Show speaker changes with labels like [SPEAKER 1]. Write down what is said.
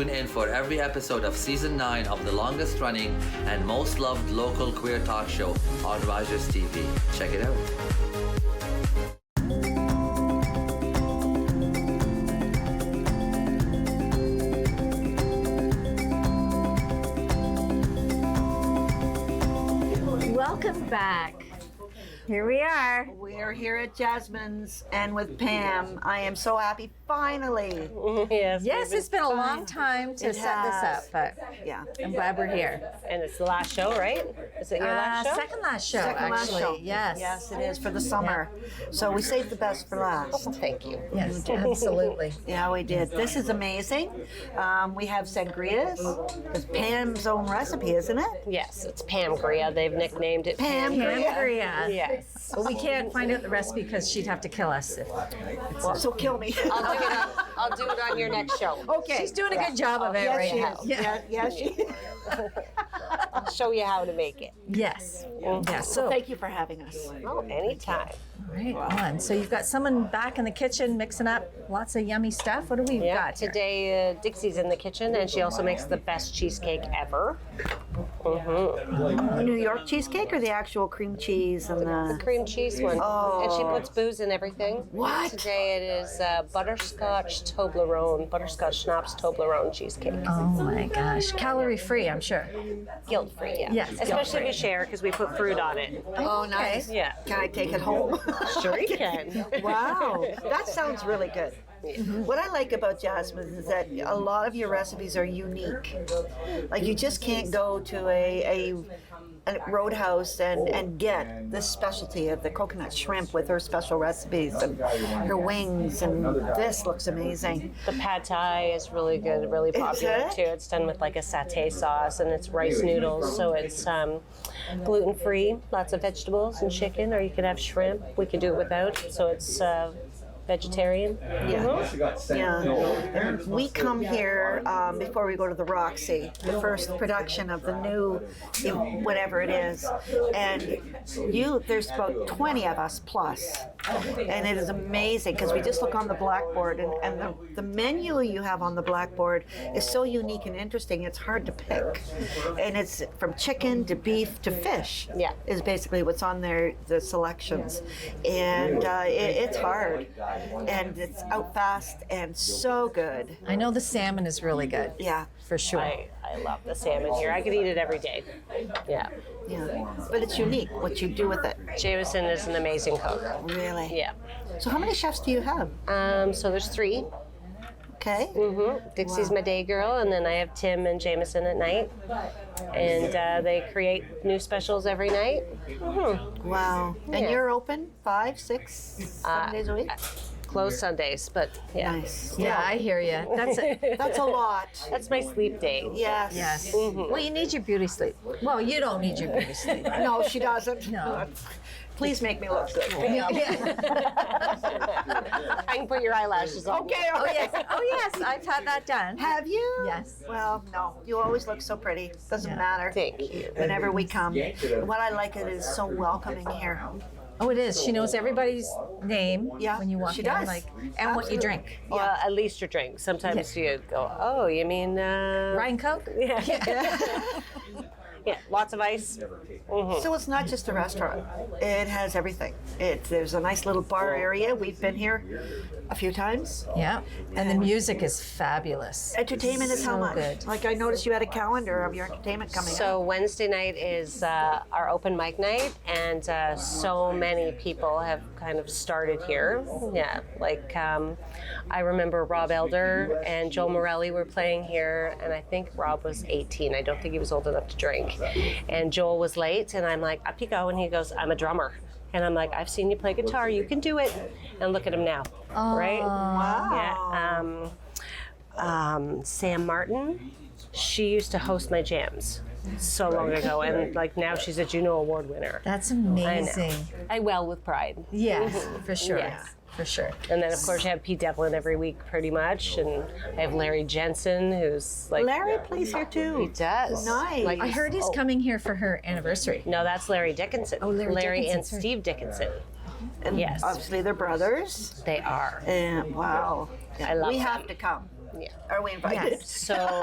[SPEAKER 1] Tune in for every episode of season 9 of the longest running and most loved local queer talk show on Rogers TV. Check it out.
[SPEAKER 2] Welcome back. Here we are.
[SPEAKER 3] We are here at Jasmine's and with Pam. I am so happy, finally.
[SPEAKER 4] Yes.
[SPEAKER 2] Yes,
[SPEAKER 4] we've
[SPEAKER 2] it's been a long time to
[SPEAKER 3] It
[SPEAKER 2] set this up,
[SPEAKER 3] has.
[SPEAKER 2] but
[SPEAKER 3] Yeah.
[SPEAKER 2] I'm glad we're here.
[SPEAKER 4] been- and it's the last show, right? Is it your last
[SPEAKER 2] Uh,
[SPEAKER 4] show?
[SPEAKER 2] second last show,
[SPEAKER 3] Second last
[SPEAKER 2] actually.
[SPEAKER 3] show.
[SPEAKER 2] Yes.
[SPEAKER 3] Oh, Yes, it is for the summer. So we saved the best for last.
[SPEAKER 4] Thank you.
[SPEAKER 2] Yes, absolutely.
[SPEAKER 3] Yeah, we did. This is amazing. Um, we have sangrias. It's Pam's own recipe, isn't it?
[SPEAKER 4] Yes, it's Pam Gria. They've nicknamed it
[SPEAKER 3] Pam Gria.
[SPEAKER 2] Sangria.
[SPEAKER 4] Yes.
[SPEAKER 2] But we can't find out the recipe because she'd have to kill us. if-
[SPEAKER 3] So kill me.
[SPEAKER 4] I'll do it on, I'll do it on your next show.
[SPEAKER 3] Okay.
[SPEAKER 2] She's doing a good job of it
[SPEAKER 3] Yes,
[SPEAKER 2] right
[SPEAKER 3] she
[SPEAKER 2] now.
[SPEAKER 3] is. Yeah, yeah, she is.
[SPEAKER 4] I'll show you how to make it.
[SPEAKER 2] Yes. Yeah. So,
[SPEAKER 3] Thank you for having us.
[SPEAKER 4] Oh, anytime.
[SPEAKER 2] right on. So you've got someone back in the kitchen mixing up lots of yummy stuff. What do we
[SPEAKER 4] Yeah.
[SPEAKER 2] got here?
[SPEAKER 4] Today, uh, Dixie's in the kitchen, and she also makes the best cheesecake ever.
[SPEAKER 3] New York cheesecake or the actual cream cheese and the.
[SPEAKER 4] Cream cheese one. And she puts booze in everything.
[SPEAKER 3] What?
[SPEAKER 4] Today it is uh, butterscotch Toblerone, butterscotch schnapps Toblerone cheesecake.
[SPEAKER 2] Oh my gosh. Calorie free, I'm sure.
[SPEAKER 4] Guilt free, yeah.
[SPEAKER 2] Yes,
[SPEAKER 4] Especially if you share, because we put fruit on it.
[SPEAKER 3] Oh, nice.
[SPEAKER 4] Yeah.
[SPEAKER 3] Can I take it home?
[SPEAKER 4] Sure you can.
[SPEAKER 3] Wow, that sounds really good. What I like about Jasmine is that a lot of your recipes are unique. Like you just can't go to a, a, a roadhouse and, and get the specialty of the coconut shrimp with her special recipes and her wings and this looks amazing.
[SPEAKER 4] The pad thai is really good, really popular
[SPEAKER 3] it?
[SPEAKER 4] too. It's done with like a satay sauce and it's rice noodles, so it's um, gluten free, lots of vegetables and chicken, or you could have shrimp. We could do it without, so it's uh, vegetarian.
[SPEAKER 3] Yeah.
[SPEAKER 5] Yeah.
[SPEAKER 3] We come here um, before we go to the Roxy, the first production of the new, you know, whatever it is, and you. There's about 20 of us plus, and it is amazing because we just look on the blackboard, and, and the, the menu you have on the blackboard is so unique and interesting. It's hard to pick, and it's from chicken to beef to fish.
[SPEAKER 4] Yeah.
[SPEAKER 3] is basically what's on there, the selections, and uh, it, it's hard, and it's out fast and so good.
[SPEAKER 2] I know the salmon is really good.
[SPEAKER 3] Yeah,
[SPEAKER 2] For sure.
[SPEAKER 4] I, I love the salmon here. I could eat it every day. Yeah.
[SPEAKER 3] yeah. But it's unique what you do with it.
[SPEAKER 4] Jameson is an amazing cook.
[SPEAKER 3] Really?
[SPEAKER 4] Yeah.
[SPEAKER 3] So how many chefs do you have?
[SPEAKER 4] Um, so there's three.
[SPEAKER 3] Okay.
[SPEAKER 4] hmm Dixie's my day girl, and then I have Tim and Jameson at night, and uh, they create new specials every night.
[SPEAKER 3] Wow. And
[SPEAKER 4] Yeah.
[SPEAKER 3] you're open five, six, seven days a week?
[SPEAKER 4] Closed Sundays, but yeah,
[SPEAKER 3] Nice.
[SPEAKER 2] Yeah, I hear you. That's it.
[SPEAKER 3] That's a lot.
[SPEAKER 4] that's my sleep day.
[SPEAKER 3] Yes.
[SPEAKER 2] Yes.
[SPEAKER 3] Mm-hmm.
[SPEAKER 2] Well, you need your beauty sleep. Well, you don't need your beauty sleep.
[SPEAKER 3] No, she doesn't.
[SPEAKER 2] No. Oh,
[SPEAKER 3] Please make me look good.
[SPEAKER 4] I can put your eyelashes on.
[SPEAKER 3] Okay.
[SPEAKER 2] Oh
[SPEAKER 3] all right.
[SPEAKER 2] yes. Oh yes. I've had that done.
[SPEAKER 3] Have you?
[SPEAKER 2] Yes.
[SPEAKER 3] Well, no. You always look so pretty. Doesn't
[SPEAKER 2] Yeah.
[SPEAKER 3] matter.
[SPEAKER 4] Thank you.
[SPEAKER 3] Whenever we come, And what I like it is so welcoming here.
[SPEAKER 2] Oh, it is. She knows everybody's name
[SPEAKER 3] Yeah,
[SPEAKER 2] when you walk
[SPEAKER 3] she
[SPEAKER 2] in,
[SPEAKER 3] does.
[SPEAKER 2] like, and what you drink.
[SPEAKER 4] Well, at least your drink. Sometimes you go, oh, you mean uh,
[SPEAKER 2] Ryan Coke.
[SPEAKER 4] Yeah. yeah, lots of ice.
[SPEAKER 3] So it's not just a restaurant. It has everything. It there's a nice little bar area. We've been here a few times.
[SPEAKER 2] Yeah. And the music is fabulous.
[SPEAKER 3] Entertainment is how
[SPEAKER 2] So
[SPEAKER 3] much?
[SPEAKER 2] good.
[SPEAKER 3] Like I noticed you had a calendar of your entertainment coming up.
[SPEAKER 4] So Wednesday night is uh, our open mic night, and uh, so many people have kind of started here. Yeah, like um, I remember Rob Elder and Joel Morelli were playing here, and I think Rob was 18. I don't think he was old enough to drink, and Joel was late, and I'm like, up you go, and he goes, I'm a drummer. And I'm like, I've seen you play guitar. You can do it. And look at him now, right? Yeah. Um, um, Sam Martin. She used to host my jams so long ago, and like now she's a Juno Award winner.
[SPEAKER 2] That's
[SPEAKER 4] I
[SPEAKER 2] amazing.
[SPEAKER 4] know. I well with pride.
[SPEAKER 2] Yes,
[SPEAKER 3] Mm-hmm.
[SPEAKER 2] for sure.
[SPEAKER 4] Yes.
[SPEAKER 2] For sure.
[SPEAKER 4] And then of course you have Pete Devlin every week, pretty much, and I have Larry Jensen, who's like
[SPEAKER 3] Larry plays here
[SPEAKER 4] He
[SPEAKER 3] too.
[SPEAKER 4] does.
[SPEAKER 3] Nice.
[SPEAKER 2] I heard he's
[SPEAKER 4] oh,
[SPEAKER 2] coming here for her anniversary.
[SPEAKER 4] No, that's Larry Dickinson. Oh,
[SPEAKER 2] Larry Dickinson,
[SPEAKER 4] and
[SPEAKER 2] sorry.
[SPEAKER 4] Steve Dickinson.
[SPEAKER 3] And
[SPEAKER 4] Yes.
[SPEAKER 3] Obviously they're brothers.
[SPEAKER 4] They are.
[SPEAKER 3] And wow.
[SPEAKER 4] I love
[SPEAKER 3] we have
[SPEAKER 4] them.
[SPEAKER 3] to come.
[SPEAKER 4] Yeah.
[SPEAKER 3] Are we invited?
[SPEAKER 4] So